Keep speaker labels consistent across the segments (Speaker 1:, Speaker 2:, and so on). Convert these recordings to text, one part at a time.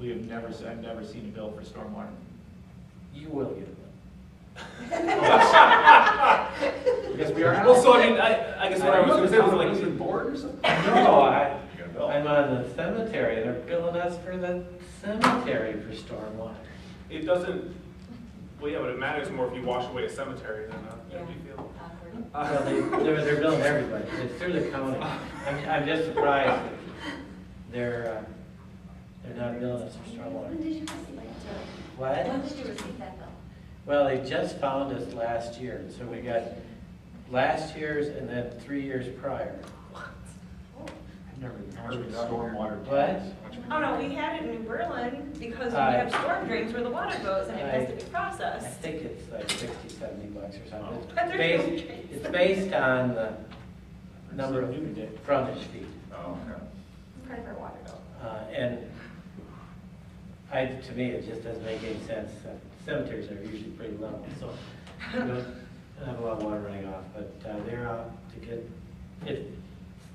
Speaker 1: we have never, se- I've never seen a bill for stormwater.
Speaker 2: You will get it.
Speaker 1: Because we are.
Speaker 2: Well, so I mean, I, I guess what I was gonna say was like.
Speaker 1: board or something?
Speaker 2: No, I,
Speaker 1: You got a bill.
Speaker 2: I'm on the cemetery, they're billing us for the cemetery for stormwater.
Speaker 3: It doesn't, well, yeah, but it matters more if you wash away a cemetery than a,
Speaker 4: Yeah.
Speaker 3: than a field.
Speaker 4: Awkward.
Speaker 2: Well, they, they're, they're billing everybody, it's through the county. I'm, I'm just surprised that they're, uh, they're not billing us for
Speaker 4: When
Speaker 2: stormwater.
Speaker 4: did you receive that bill?
Speaker 2: What?
Speaker 4: When did you receive that bill?
Speaker 2: Well, they just found us last year, so we got last year's and then three years prior.
Speaker 1: I've never heard of stormwater.
Speaker 2: What?
Speaker 5: Oh, no, we had it in New Berlin because we
Speaker 2: Aye.
Speaker 5: have storm drains where the water goes and it has to be
Speaker 2: I
Speaker 5: processed.
Speaker 2: think it's like sixty, seventy bucks or something.
Speaker 3: Oh.
Speaker 5: But
Speaker 2: It's
Speaker 5: there's no
Speaker 2: based,
Speaker 5: trees.
Speaker 2: it's based on the number of
Speaker 1: New today.
Speaker 2: frontage feet.
Speaker 1: Oh, okay.
Speaker 5: Part of our water bill.
Speaker 2: Uh, And I, to me, it just doesn't make any sense. Cemeteries are usually pretty level, so you don't have a lot of water running off, but uh, they're out to get, it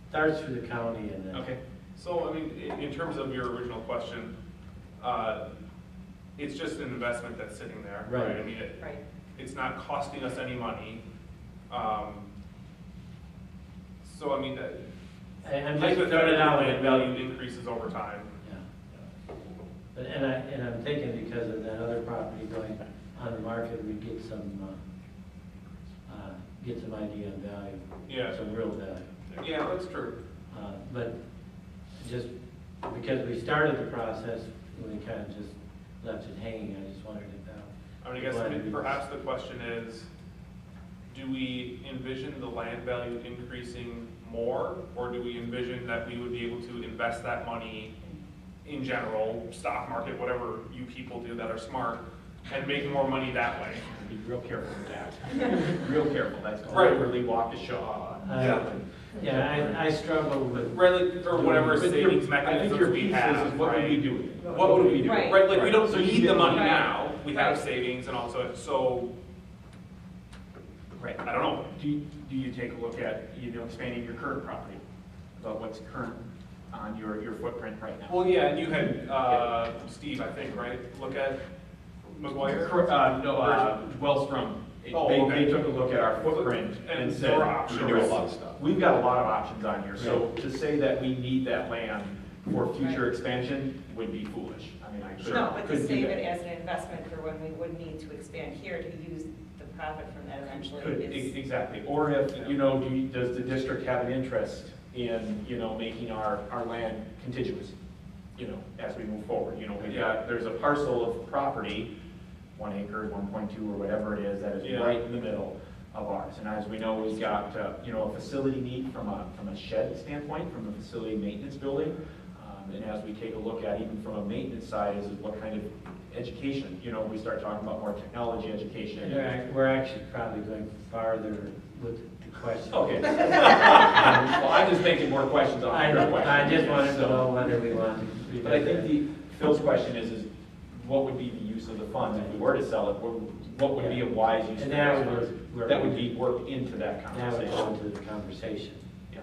Speaker 2: starts through the county and then.
Speaker 3: Okay, so I mean, in, in terms of your original question, uh, it's just an investment that's sitting there.
Speaker 2: Right.
Speaker 3: I mean, it,
Speaker 5: Right.
Speaker 3: it's not costing us any money. Um, So I mean, uh, that.
Speaker 2: I- I'm just throwing
Speaker 3: hypothetically,
Speaker 2: it out
Speaker 3: land
Speaker 2: and
Speaker 3: value increases over time.
Speaker 2: Yeah. But, and I, and I'm thinking because of that other property going on the market, we'd get some, uh, uh, get some idea on value.
Speaker 3: Yeah.
Speaker 2: Some real value.
Speaker 3: Yeah, that's true.
Speaker 2: Uh, But just because we started the process, we kind of just left it hanging, I just wondered if that.
Speaker 3: I mean, I guess
Speaker 2: Right.
Speaker 3: maybe perhaps the question is, do we envision the land value increasing more? Or do we envision that we would be able to invest that money in general, stock market, whatever you people do that are smart, and make more money that way?
Speaker 1: Be real careful with that. Real careful, that's called
Speaker 3: Right.
Speaker 1: really Waukesha.
Speaker 2: I- Yeah, I, I struggle with,
Speaker 3: Right, like, or whatever
Speaker 1: But your-
Speaker 3: savings
Speaker 1: I think
Speaker 3: mechanisms
Speaker 1: your
Speaker 3: we
Speaker 1: piece is,
Speaker 3: have,
Speaker 1: is What would
Speaker 3: right?
Speaker 1: we do with it?
Speaker 3: What would we do?
Speaker 5: Right.
Speaker 3: Right, like, we don't
Speaker 1: So you
Speaker 3: need the
Speaker 1: didn't-
Speaker 3: money
Speaker 5: Right.
Speaker 3: now, we have
Speaker 5: Right.
Speaker 3: savings and also, so,
Speaker 1: Right.
Speaker 3: I don't know.
Speaker 1: Do, you- do you take a look at, you know, expanding your current property, about what's current on your, your footprint right now?
Speaker 3: Well, yeah, and you had, uh, Steve, I think, right, look at McGuire?
Speaker 1: Cor- Uh, no, uh, Wellstrom, they,
Speaker 3: Oh, okay.
Speaker 1: they took a look at our footprint and
Speaker 3: And
Speaker 1: said.
Speaker 3: our options.
Speaker 1: "We do a lot of stuff. We've got a lot of options on here, so to say that we need that land for future expansion would be foolish. I mean, I could.
Speaker 5: No, but to
Speaker 1: could do
Speaker 5: save
Speaker 1: that.
Speaker 5: it as an investment for when we would need to expand here to use the profit from that eventually
Speaker 1: Could,
Speaker 5: is.
Speaker 1: e- exactly, or if, you know, do, you- does the district have an interest in, you know, making our, our land contiguous? You know, as we move forward, you know, we've
Speaker 3: Yeah.
Speaker 1: got, there's a parcel of property, one acre, one point two, or whatever it is, that is
Speaker 3: Yeah.
Speaker 1: right in the middle of ours. And as we know, we've got, uh, you know, a facility need from a, from a shed standpoint, from a facility maintenance building. Um, And as we take a look at, even from a maintenance side, is what kind of education, you know, we start talking about more technology education.
Speaker 2: we're ac- we're actually probably going farther with the question.
Speaker 1: Okay. Well, I'm just making more questions on
Speaker 2: I,
Speaker 1: your question.
Speaker 2: I just wanted to
Speaker 1: so-
Speaker 2: know whether we want to.
Speaker 1: But I think the, Phil's question is, is what would be the use of the funds if we were to sell it? What would- What would be a wise use
Speaker 2: And
Speaker 1: of those
Speaker 2: that was
Speaker 1: funds?
Speaker 2: where.
Speaker 1: That would be worked into that
Speaker 2: Now we're going
Speaker 1: conversation.
Speaker 2: to the conversation.
Speaker 1: Yeah.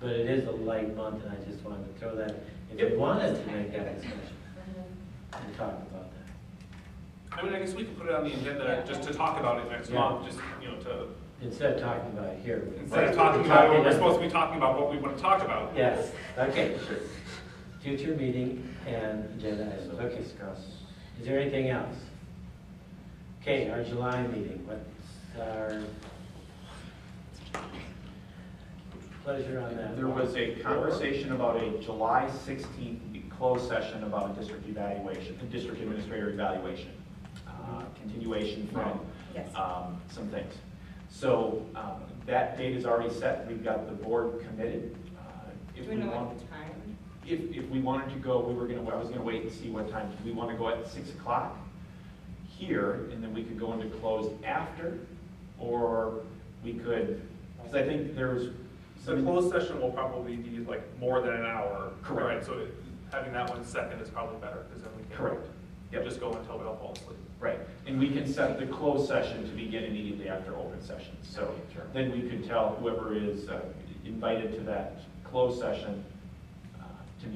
Speaker 2: But it is a light month, and I just wanted to throw that, if
Speaker 1: Yep.
Speaker 2: we wanted to make that discussion
Speaker 4: Mhm.
Speaker 2: and talk about that.
Speaker 3: I mean, I guess we could put it on the agenda just to talk about it next
Speaker 2: Yeah.
Speaker 3: month, just, you know, to,
Speaker 2: Instead of talking about it here. we-
Speaker 3: instead of talking about what we're supposed to be talking about, what we want to talk about.
Speaker 2: Yes, okay, sure. Future meeting and agenda items, okay. Is there anything else? Okay, our July meeting, what's our pleasure on that?
Speaker 1: There was a conversation about a July 16th closed session about a district evaluation, a district administrator evaluation, uh, continuation from
Speaker 5: Yes.
Speaker 1: um, some things. So um, that date is already set, we've got the board committed. Uh,
Speaker 5: Do
Speaker 1: If
Speaker 5: we
Speaker 1: we
Speaker 5: know
Speaker 1: want,
Speaker 5: what the time?
Speaker 1: if, if we wanted to go, we were gonna, I was gonna wait and see what time, we wanna go at six o'clock here, and then we could go into closed after, or we could, because I think there's
Speaker 3: So
Speaker 1: some.
Speaker 3: closed session will probably be like more than an hour.
Speaker 1: Correct.
Speaker 3: right? So having that one second is probably better, because then we can.
Speaker 1: Correct. Yep.
Speaker 3: Just go until we all fall asleep.
Speaker 1: Right, and we can set the closed session to begin immediately after open session. So then we could tell whoever is uh, invited to that closed session,